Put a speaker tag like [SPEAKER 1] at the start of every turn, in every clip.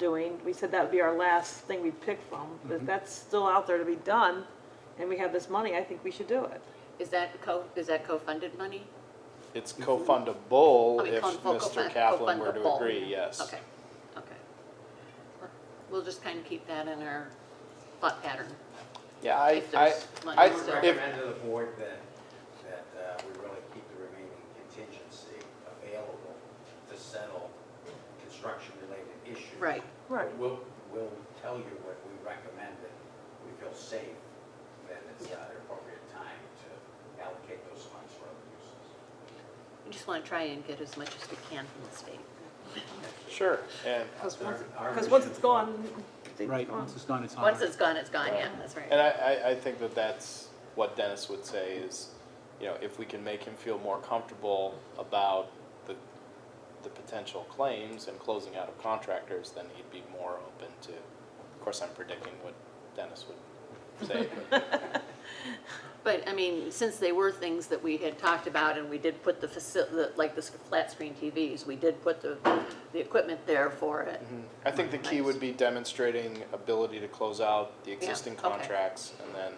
[SPEAKER 1] doing. We said that would be our last thing we'd pick from, but if that's still out there to be done, and we have this money, I think we should do it.
[SPEAKER 2] Is that co, is that co-funded money?
[SPEAKER 3] It's
[SPEAKER 2] I
[SPEAKER 3] co-fundable
[SPEAKER 2] mean,
[SPEAKER 3] if
[SPEAKER 2] Oh, co- co-
[SPEAKER 3] Mr.
[SPEAKER 2] co-fund-
[SPEAKER 3] Kaplan were to
[SPEAKER 2] co-fundable.
[SPEAKER 3] agree, yes.
[SPEAKER 2] Okay, okay. We'll just kind of keep that in our thought pattern.
[SPEAKER 3] Yeah, I,
[SPEAKER 2] If
[SPEAKER 3] I,
[SPEAKER 2] there's money
[SPEAKER 3] I,
[SPEAKER 2] still.
[SPEAKER 3] if,
[SPEAKER 4] recommend to the board that, that uh, we really keep the remaining contingency available to settle construction-related issues.
[SPEAKER 2] Right.
[SPEAKER 1] Right.
[SPEAKER 4] We'll, we'll tell you what we recommend, that we feel safe, then it's uh, the appropriate time to allocate those funds for other uses.
[SPEAKER 2] We just want to try and get as much as we can from the state.
[SPEAKER 3] sure, and,
[SPEAKER 1] Because once,
[SPEAKER 4] Our- our
[SPEAKER 1] 'cause once
[SPEAKER 4] mission-
[SPEAKER 1] it's gone, it's
[SPEAKER 5] Right,
[SPEAKER 1] gone.
[SPEAKER 5] once it's gone, it's on.
[SPEAKER 2] Once it's gone, it's gone, yeah, that's right.
[SPEAKER 3] and I, I, I think that that's what Dennis would say is, you know, if we can make him feel more comfortable about the, the potential claims and closing out of contractors, then he'd be more open to, of course, I'm predicting what Dennis would say, but,
[SPEAKER 2] But, I mean, since they were things that we had talked about and we did put the faci, the- like the sc- flat screen TVs, we did put the, the equipment there for it.
[SPEAKER 3] Mm-hmm. I think the key would be demonstrating ability to close out the existing
[SPEAKER 2] okay.
[SPEAKER 3] contracts, and then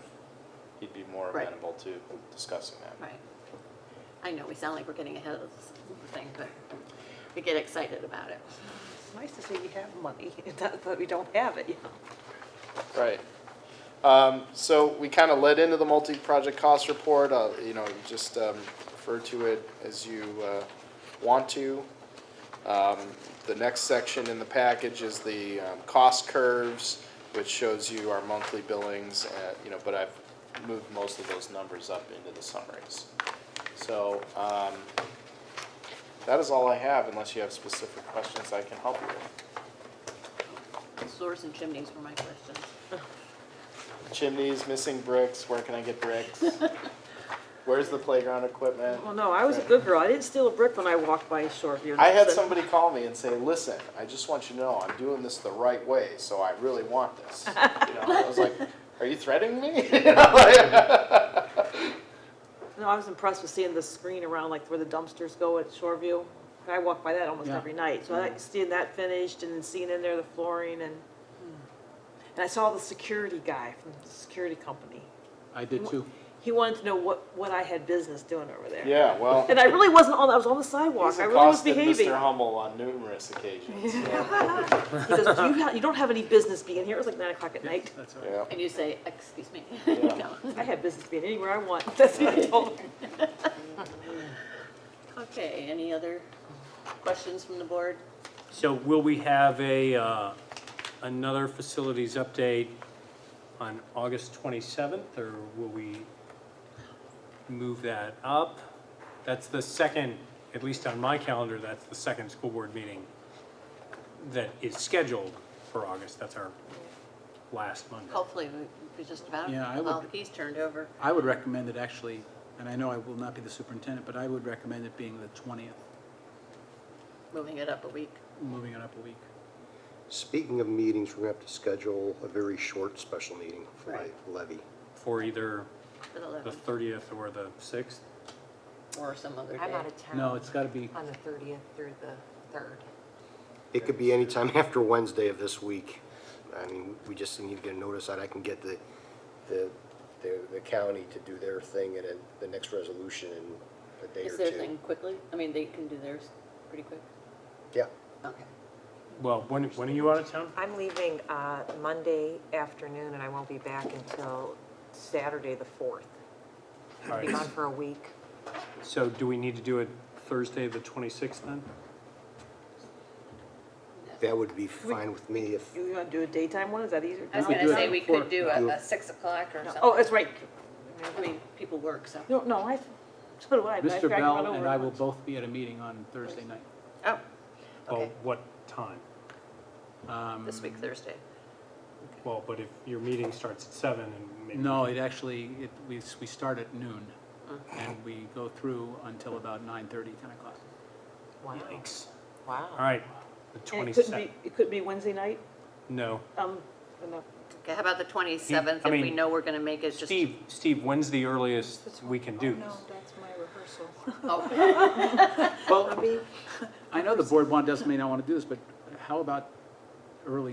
[SPEAKER 3] he'd be more
[SPEAKER 2] Right.
[SPEAKER 3] amenable to discussing that.
[SPEAKER 2] Right. I know, we sound like we're getting ahead of this thing, but we get excited about it.
[SPEAKER 1] It's nice to say we have money, not that we don't have it, you know.
[SPEAKER 3] Right. Um, so we kind of led into the multi-project cost report, uh, you know, you just, um, refer to it as you, uh, want to. Um, the next section in the package is the, um, cost curves, which shows you our monthly billings, uh, you know, but I've moved most of those numbers up into the summaries. So, um, that is all I have, unless you have specific questions I can help you with.
[SPEAKER 2] Doors and chimneys were my questions.
[SPEAKER 3] Chimneys, missing bricks, where can I get bricks? Where's the playground equipment?
[SPEAKER 1] Well, no, I was a good girl. I didn't steal a brick when I walked by Shoreview.
[SPEAKER 3] I had
[SPEAKER 1] That's it.
[SPEAKER 3] somebody call me and say, listen, I just want you to know, I'm doing this the right way, so I really want this. You know, I was like, are you threatening me? You know, like-
[SPEAKER 1] No, I was impressed with seeing the screen around, like where the dumpsters go at Shoreview. I walk by that almost
[SPEAKER 5] Yeah.
[SPEAKER 1] every night, so I like seeing that finished and then seeing in there the flooring and, and I saw the security guy from the security company.
[SPEAKER 5] I did too.
[SPEAKER 1] He wanted to know what, what I had business doing over there.
[SPEAKER 3] Yeah, well,
[SPEAKER 1] And I really wasn't on, I was on the sidewalk,
[SPEAKER 3] he's
[SPEAKER 1] I really was
[SPEAKER 3] accosted
[SPEAKER 1] behaving.
[SPEAKER 3] Mr. Hummel on numerous occasions.
[SPEAKER 1] He goes, you, ha- you don't have any business being here, it was like nine o'clock at night.
[SPEAKER 5] That's all right.
[SPEAKER 3] Yeah,
[SPEAKER 2] And you say, excuse me.
[SPEAKER 3] Yeah.
[SPEAKER 2] No.
[SPEAKER 1] I have business being anywhere I want, that's what I told him.
[SPEAKER 2] Okay, any other questions from the board?
[SPEAKER 6] So will we have a, uh, another facilities update on August 27th, or will we move that up? That's the second, at least on my calendar, that's the second school board meeting that is scheduled for August. That's our last Monday.
[SPEAKER 2] Hopefully, we- we just about,
[SPEAKER 5] Yeah, I
[SPEAKER 2] all the
[SPEAKER 5] would-
[SPEAKER 2] keys turned over.
[SPEAKER 5] I would recommend it actually, and I know I will not be the superintendent, but I would recommend it being the 20th,
[SPEAKER 2] moving it up a week.
[SPEAKER 5] moving it up a week.
[SPEAKER 7] Speaking of meetings, we're going to have to schedule a very short special meeting for
[SPEAKER 2] Right.
[SPEAKER 7] the levy.
[SPEAKER 6] For either
[SPEAKER 2] for the
[SPEAKER 6] the
[SPEAKER 2] 11th
[SPEAKER 6] 30th or the 6th?
[SPEAKER 2] or some other
[SPEAKER 8] I'm out
[SPEAKER 2] day.
[SPEAKER 8] of town.
[SPEAKER 5] No, it's got to be,
[SPEAKER 8] On the thirtieth through the third.
[SPEAKER 7] It could be any time after Wednesday of this week. I mean, we just need to get a notice out. I can get the, the, the the county to do their thing and then the next resolution in a day
[SPEAKER 2] Is
[SPEAKER 7] or
[SPEAKER 2] their
[SPEAKER 7] two.
[SPEAKER 2] thing quickly? I mean, they can do theirs pretty quick.
[SPEAKER 7] Yeah,
[SPEAKER 2] Okay.
[SPEAKER 6] Well, when, when are you out of town?
[SPEAKER 8] I'm leaving uh, Monday afternoon and I won't be back until Saturday, the fourth.
[SPEAKER 6] All
[SPEAKER 8] Be gone
[SPEAKER 6] right,
[SPEAKER 8] for a week.
[SPEAKER 6] so do we need to do it Thursday, the 26th then?
[SPEAKER 7] that would be fine with me if,
[SPEAKER 1] You wanna do a daytime one, is that easier?
[SPEAKER 2] I was
[SPEAKER 5] could
[SPEAKER 2] gonna
[SPEAKER 5] do it
[SPEAKER 2] say we could
[SPEAKER 5] for-
[SPEAKER 2] do a,
[SPEAKER 7] do
[SPEAKER 2] a
[SPEAKER 7] it-
[SPEAKER 2] six o'clock or something.
[SPEAKER 1] Oh, that's right,
[SPEAKER 2] I mean, people work, so.
[SPEAKER 1] no, no, I, so do I, but I
[SPEAKER 5] Mr.
[SPEAKER 1] figured I could run
[SPEAKER 5] Bell and
[SPEAKER 1] over
[SPEAKER 5] I
[SPEAKER 1] it.
[SPEAKER 5] will both be at a meeting on Thursday night.
[SPEAKER 2] Oh,
[SPEAKER 6] Well,
[SPEAKER 2] Okay.
[SPEAKER 6] what time?
[SPEAKER 5] Um,
[SPEAKER 2] this week, Thursday.
[SPEAKER 6] Well, but if your meeting starts at seven and maybe.
[SPEAKER 5] No, it actually, it, we, we start at noon and we go through until about 9:30, 10 o'clock.
[SPEAKER 8] Wow,
[SPEAKER 6] Yikes. All
[SPEAKER 8] wow.
[SPEAKER 6] right, the
[SPEAKER 1] And it couldn't
[SPEAKER 6] twenty-seventh,
[SPEAKER 1] be, it couldn't be Wednesday night,
[SPEAKER 6] no.
[SPEAKER 1] um, no.
[SPEAKER 2] Okay, how about the twenty-seventh?
[SPEAKER 6] I
[SPEAKER 2] If we
[SPEAKER 6] mean,
[SPEAKER 2] know we're gonna make it, just.
[SPEAKER 6] Steve, Steve, when's the earliest we can
[SPEAKER 1] Oh,
[SPEAKER 6] do this?
[SPEAKER 8] that's my rehearsal.
[SPEAKER 2] Oh,
[SPEAKER 5] Well, I know the board want, doesn't mean I want to do this, but how about early